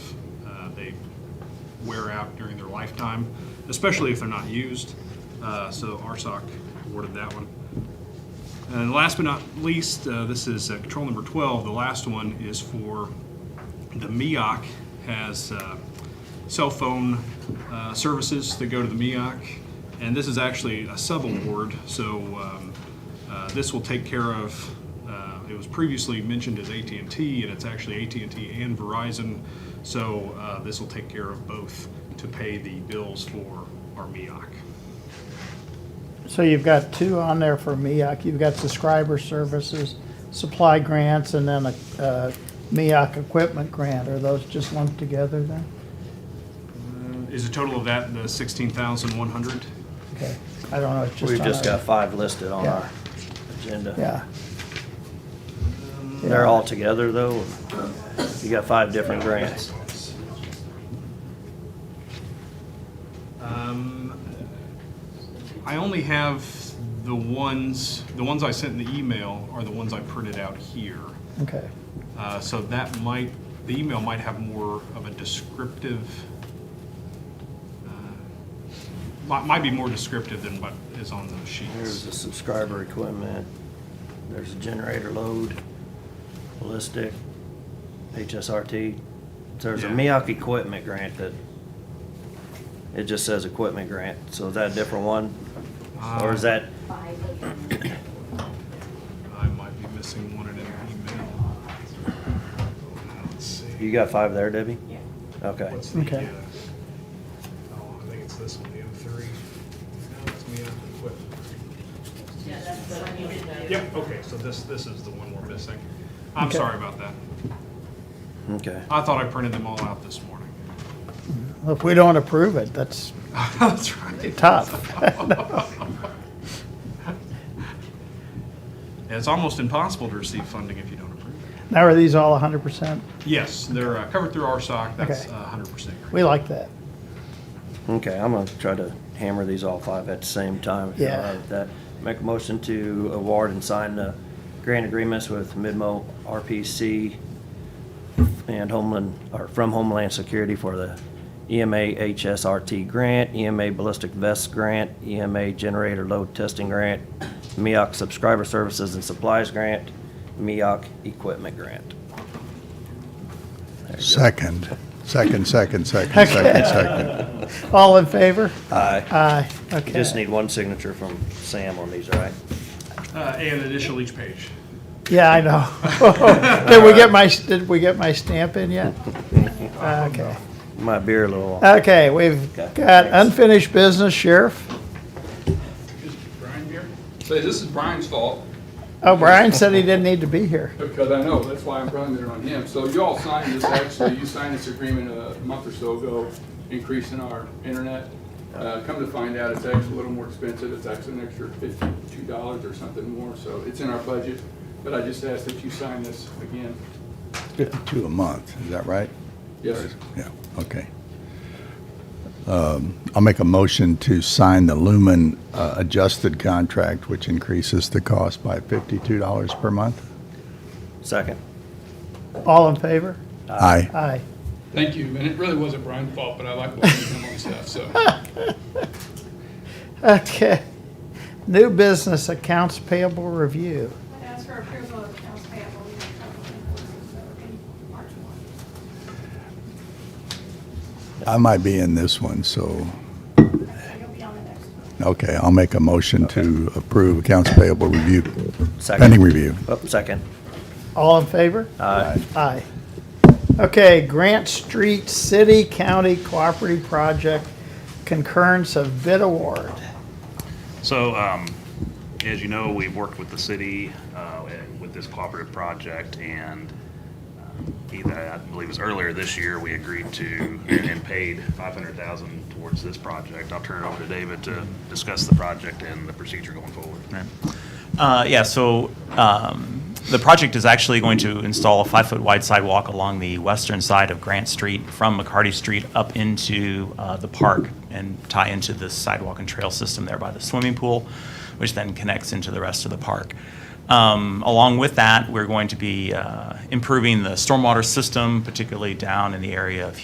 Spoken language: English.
uh, they wear out during their lifetime, especially if they're not used. Uh, So RSOC awarded that one. And last but not least, uh, this is uh, control number 12. The last one is for the MEOC has uh, cell phone uh, services that go to the MEOC. And this is actually a sub-award, so um, uh, this will take care of, uh, it was previously mentioned as at and T, and it's actually at and T and Verizon. So uh, this will take care of both to pay the bills for our E MEOC. So you've got two on there for MEAC. You've got subscriber services, supply grants, and then a uh, MEAC equipment grant. Are those just lumped together then? Is the total of that the 16,100? Okay, I don't know. It's just We've on just our- got five listed on Yeah. our agenda. Yeah. Um, They're Yeah. all together, though. You got five different grants. Um, I only have the ones, the ones I sent in the email are the ones I printed out here. Okay, Uh, So that might, the email might have more of a descriptive, uh, might might be more descriptive than what is on those There's sheets. the subscriber equipment, there's a generator load, ballistic, HSRT. There's a Yeah. MEAC equipment grant that, it just says equipment grant, so is that a different one? Or Uh, is that, five different I might be missing one in an email. Let's see. you got five there, Debbie? Okay. What's the, Okay. uh, oh, I think it's this one, the M3. No, it's me, I'm equipped. Yeah, that's the one you did. Yep, okay, so this, this is the one we're missing. I'm Okay. sorry about that. Okay. I thought I printed them all out this morning. Well, if we don't approve it, that's That's right. tough. And It's almost impossible to receive funding if you don't approve it. Now, are these all hundred percent? Yes, they're uh, covered through RSOC, that's uh, Okay. hundred percent. We like that. Okay, I'm gonna try to hammer these all five at the same time. if you're all Yeah. right with That, make a motion to award and sign the grant agreements with Midmo RPC and Homeland, or from Homeland Security for the E EMA HSRT grant, EMA Ballistic Vest Grant, EMA Generator Load Testing Grant, MEOC Subscriber Services and Supplies Grant, MEOC Equipment Grant. Second, second, second, second, second, second. All in favor? Aye. Aye, You okay. just need one signature from Sam on these, all right? Uh, and initial each page. Yeah, I know. Did we get my, did we get my stamp in yet? Okay. My beer a little. Okay, we've Okay, got thanks. unfinished business, Sheriff. Is Brian here? Say, this is Brian's fault, Oh, Brian said he didn't need to be here. because I know, that's why I'm running it on him. So you all signed this, actually, you signed this agreement a month or so ago, increasing our internet. Uh, Come to find out, it's actually a little more expensive, it's actually an extra fifty-two dollars or something more, so it's in our budget. But I just ask that you sign this again. Fifty-two a month, is that right? Yes, sir. Yeah, okay. Um, I'll make a motion to sign the Lumen uh, adjusted contract, which increases the cost by fifty-two dollars per month. Second. All in favor? Aye. Aye. thank you, and it really wasn't Brian's fault, but I like watching him on stuff, so. Okay. New business accounts payable review. I'd ask for approval of accounts payable, we have trouble invoices that were in March 1. I might be in this one, So so, you'll be on the next one. okay, I'll make a motion to approve accounts payable review, Second. pending review. Oh, second. All in favor? Aye. Aye. Okay, Grant Street City County Cooperative Project concurrence of bid award. So, um, as you know, we've worked with the city, uh, with this cooperative project and um, either, I believe it was earlier this year, we agreed to and paid five hundred thousand towards this project. I'll turn it over to David to discuss the project and the procedure going forward. Uh, yeah, so um, the project is actually going to install a five foot wide sidewalk along the western side of Grant Street from McCarty Street up into uh, the park and tie into the sidewalk and trail system there by the swimming pool, which then connects into the rest of the park. Um, along with that, we're going to be uh, improving the stormwater system, particularly down in the area of